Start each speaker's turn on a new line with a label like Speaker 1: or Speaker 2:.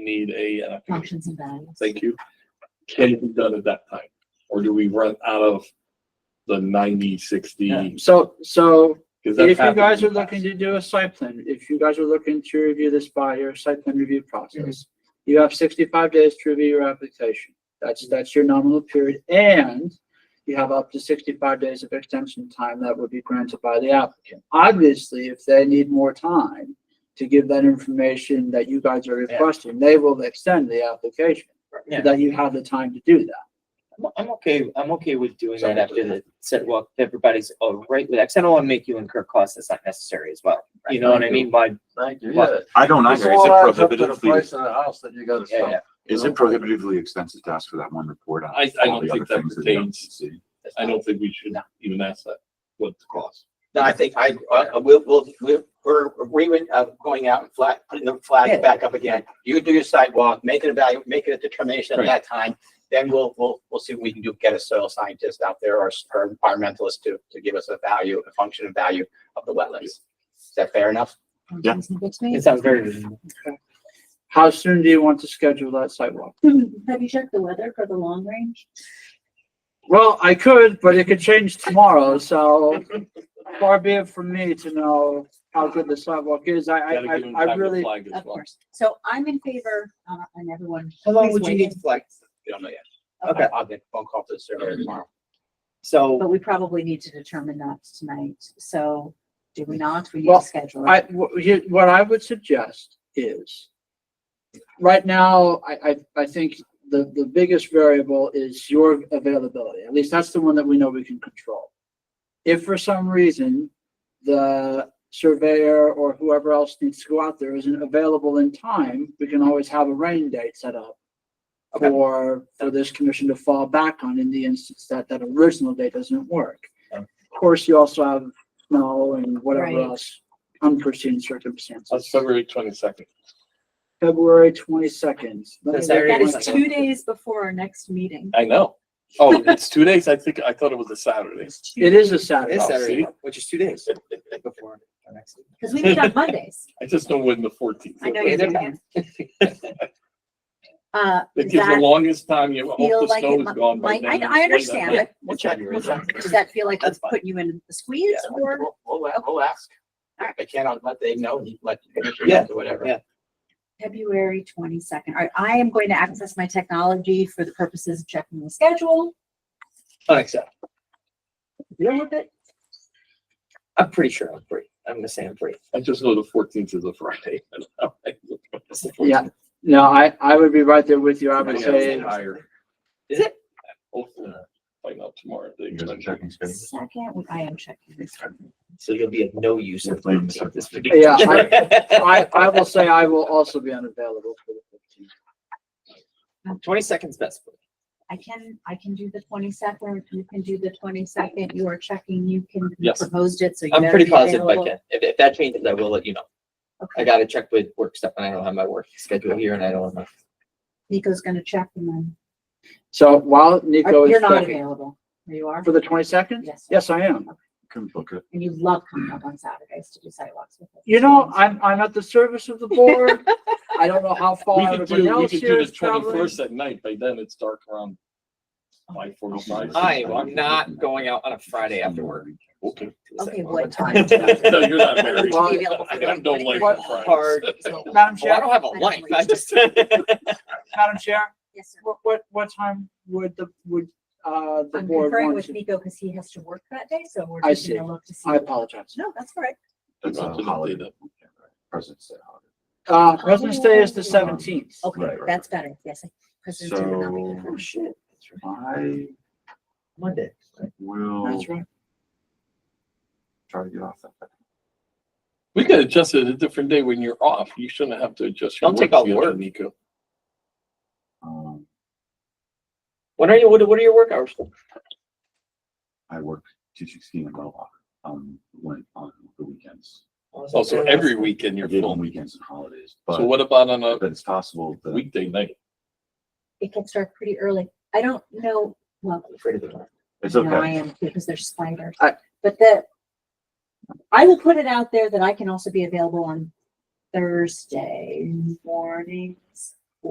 Speaker 1: need a, uh,
Speaker 2: functions and values.
Speaker 1: thank you, can be done at that time? Or do we run out of the ninety,
Speaker 3: Yeah,
Speaker 1: sixty?
Speaker 3: So, so
Speaker 1: 'Cause that's
Speaker 3: if you
Speaker 1: happened
Speaker 3: guys
Speaker 1: in
Speaker 3: are
Speaker 1: the
Speaker 3: looking
Speaker 1: past.
Speaker 3: to do a site plan, if you guys are looking to review this by your site plan review process, you have sixty-five days to review your application. That's, that's your nominal period and you have up to sixty-five days of extension time that would be granted by the applicant. Obviously, if they need more time to give that information that you guys are
Speaker 4: Yeah.
Speaker 3: requesting, they will extend the application. so
Speaker 4: Yeah,
Speaker 3: That you have the time to do that.
Speaker 4: I'm- I'm okay, I'm okay with doing that after the set walk, if everybody's all right with that, 'cause I don't wanna make you incur costs that's not necessary as well. You know what I mean? Why,
Speaker 5: Thank you,
Speaker 4: Well,
Speaker 5: yeah.
Speaker 6: I don't either. Is
Speaker 5: all
Speaker 6: it
Speaker 5: adds up to the
Speaker 6: prohibitively,
Speaker 5: Price of the house that you gotta
Speaker 4: yeah, yeah.
Speaker 5: sell.
Speaker 6: is it prohibitively expensive to ask for that one report? on
Speaker 1: I- I
Speaker 6: all
Speaker 1: don't
Speaker 6: the
Speaker 1: think
Speaker 6: other
Speaker 1: that
Speaker 6: things you don't
Speaker 1: pertains.
Speaker 6: see?
Speaker 1: I don't think we should even ask that, what the cost.
Speaker 7: No, I think I, uh, we'll, we'll, we'll, we're agreeing of going out and flag, putting the
Speaker 4: Yeah.
Speaker 7: flag back up again. You do your sidewalk, make it a value, make it a determination at that time. Then we'll, we'll, we'll see what we can do, get a soil scientist out there or, s- or environmentalist to, to give us a value, a function and value of the wetlands. Is that fair enough?
Speaker 6: Yeah.
Speaker 2: Sounds good to me.
Speaker 4: It sounds very,
Speaker 3: How soon do you want to schedule that site walk?
Speaker 2: Have you checked the weather for the long range?
Speaker 3: Well, I could, but it could change tomorrow, so far be it from me to know how good the sidewalk is. I, I,
Speaker 1: Gotta give them
Speaker 3: I- I
Speaker 1: time to
Speaker 3: really,
Speaker 1: flag as
Speaker 2: Of
Speaker 1: well.
Speaker 2: course. So I'm in favor, uh, and everyone.
Speaker 4: how long
Speaker 2: please
Speaker 4: would you
Speaker 2: weigh
Speaker 4: need
Speaker 2: in.
Speaker 4: to flag?
Speaker 7: We don't know yet.
Speaker 4: Okay.
Speaker 7: I'll get a phone call to the surveyor tomorrow.
Speaker 4: So.
Speaker 2: But we probably need to determine that tonight. So do we not? We need
Speaker 3: Well,
Speaker 2: to schedule
Speaker 3: I,
Speaker 2: it.
Speaker 3: wh- here- what I would suggest is right now, I, I, I think the, the biggest variable is your availability. At least that's the one that we know we can control. If for some reason the surveyor or whoever else needs to go out there isn't available in time, we can always have a rain date set up.
Speaker 4: Okay.
Speaker 3: for, for this commission to fall back on in the instance that that original date doesn't work.
Speaker 4: Yeah.
Speaker 3: Of course, you also have snow and whatever
Speaker 2: Right.
Speaker 3: else unforeseen circumstances.
Speaker 1: That's February twenty-second.
Speaker 3: February twenty-second.
Speaker 4: That's
Speaker 2: That
Speaker 4: Saturday,
Speaker 2: is
Speaker 4: Sunday.
Speaker 2: two days before our next meeting.
Speaker 1: I know. Oh, it's two days? I think, I thought it was a Saturday.
Speaker 2: It's two
Speaker 3: It is a
Speaker 2: days.
Speaker 3: Saturday.
Speaker 4: This Saturday,
Speaker 1: See?
Speaker 4: which is two days before our next. meeting.
Speaker 2: Cause we meet on Mondays.
Speaker 1: I just know when the fourteenth.
Speaker 2: I know
Speaker 4: Okay,
Speaker 2: you
Speaker 4: they're
Speaker 2: do. Ann. Uh,
Speaker 1: It gives the
Speaker 2: that
Speaker 1: longest time. You hope
Speaker 2: feel
Speaker 1: the
Speaker 2: like
Speaker 1: snow
Speaker 2: it
Speaker 1: is
Speaker 2: mi-
Speaker 1: gone by
Speaker 2: might,
Speaker 1: then.
Speaker 2: I,
Speaker 1: It's
Speaker 2: I
Speaker 1: way
Speaker 2: understand,
Speaker 1: down.
Speaker 2: but
Speaker 4: We'll
Speaker 2: does that-
Speaker 4: check.
Speaker 2: does that- does that feel like it's
Speaker 4: That's fine.
Speaker 2: putting you in the squeeze or?
Speaker 7: We'll, we'll, we'll ask.
Speaker 2: Alright.
Speaker 7: If I can't, let Dave know, let,
Speaker 4: Yeah,
Speaker 7: or whatever.
Speaker 4: yeah.
Speaker 2: February twenty-second. All right, I am going to access my technology for the purposes of checking the schedule.
Speaker 4: Unacceptable.
Speaker 2: Deal with it.
Speaker 4: I'm pretty sure I'm free. I'm gonna say I'm free.
Speaker 1: I just know the fourteenth is a Friday.
Speaker 4: It's the
Speaker 3: Yeah, no, I, I would be right there with you. I would
Speaker 1: Yeah, it's
Speaker 3: say,
Speaker 1: higher.
Speaker 4: Is it? Uh,
Speaker 1: Hopefully, Find out tomorrow.
Speaker 6: You guys are checking schedule?
Speaker 2: Second, I am checking this.
Speaker 4: So you'll be of no use.
Speaker 6: We're
Speaker 4: if
Speaker 6: playing
Speaker 4: we
Speaker 6: this
Speaker 4: take
Speaker 6: up.
Speaker 4: this
Speaker 3: Yeah,
Speaker 4: ridiculous-
Speaker 3: I, I will say I will also be unavailable for the fifteenth.
Speaker 4: Twenty seconds best.
Speaker 2: I can, I can do the twenty-second, you can do the twenty-second, you are checking, you can. you
Speaker 1: Yes.
Speaker 2: Proposed it, so. you
Speaker 4: I'm
Speaker 2: better
Speaker 4: pretty
Speaker 2: be
Speaker 4: positive I
Speaker 2: available.
Speaker 4: can. If, if that changes, I will let you know. I
Speaker 2: Okay,
Speaker 4: gotta check with work stuff and I don't have my work schedule here and I don't have my.
Speaker 2: Nico's gonna check and then,
Speaker 3: So while Nico
Speaker 2: Are-
Speaker 3: is
Speaker 2: you're not
Speaker 3: checking
Speaker 2: available, There you are,
Speaker 3: for the twenty-second?
Speaker 2: Yes.
Speaker 3: Yes, I am.
Speaker 6: Can book it.
Speaker 2: and you love coming up on Saturdays to do sidewalks with us.
Speaker 3: You know, I'm, I'm at the service of the board. I don't know how
Speaker 1: We
Speaker 3: far
Speaker 1: could do,
Speaker 3: everybody
Speaker 1: we
Speaker 3: else
Speaker 1: could
Speaker 3: here
Speaker 1: do
Speaker 3: is
Speaker 1: the
Speaker 3: traveling.
Speaker 1: twenty-first at night. By then it's dark around five forty-five.
Speaker 6: Aye.
Speaker 4: I am not going out on a Friday after work.
Speaker 1: Okay.
Speaker 2: Okay, what time?
Speaker 1: No, you're not married.
Speaker 3: Well,
Speaker 1: I don't like
Speaker 3: What-
Speaker 1: Fridays.
Speaker 4: Hard.
Speaker 3: Madam
Speaker 4: Well, I
Speaker 3: Chair,
Speaker 4: don't have a life. I just.
Speaker 3: Madam Chair,
Speaker 2: Yes, sir.
Speaker 3: what, what, what time would the, would, uh, the
Speaker 2: I'm
Speaker 3: board
Speaker 2: conferring
Speaker 3: want
Speaker 2: with
Speaker 3: to?
Speaker 2: Nico because he has to work that day, so we're
Speaker 3: I
Speaker 2: just gonna
Speaker 3: see.
Speaker 2: look to see.
Speaker 3: I apologize.
Speaker 2: No, that's all right.
Speaker 6: That's a
Speaker 1: Something to do
Speaker 6: holiday.
Speaker 1: that.
Speaker 6: President's Day holiday.
Speaker 3: Uh, President's Day is the
Speaker 2: Oh.
Speaker 3: seventeenth.
Speaker 2: Okay,
Speaker 6: Right, right,
Speaker 2: that's better, yes. President's Day would not be good for
Speaker 4: Oh,
Speaker 6: So-
Speaker 2: us.
Speaker 4: shit. That's right.
Speaker 6: I
Speaker 4: Monday.
Speaker 6: will
Speaker 3: That's right.
Speaker 6: try to get off that.
Speaker 1: We could adjust it a different day when you're off. You shouldn't have to adjust. your
Speaker 4: Don't take off
Speaker 1: schedule,
Speaker 4: work.
Speaker 1: Nico.
Speaker 6: Um,
Speaker 4: When are you, what, what are your work hours?
Speaker 6: I work teaching skiing in Mohawk, um, when, on the weekends.
Speaker 1: Oh, so every weekend
Speaker 6: I
Speaker 1: you're
Speaker 6: did
Speaker 1: full.
Speaker 6: on weekends and holidays,
Speaker 1: So
Speaker 6: but,
Speaker 1: what about on a
Speaker 6: but it's possible that
Speaker 1: weekday night?
Speaker 2: It can start pretty early. I don't know, well,
Speaker 4: Afraid of the dark.
Speaker 6: it's
Speaker 2: no, I
Speaker 6: okay.
Speaker 2: am because there's spiders.
Speaker 3: I-
Speaker 2: But the, I will put it out there that I can also be available on Thursday mornings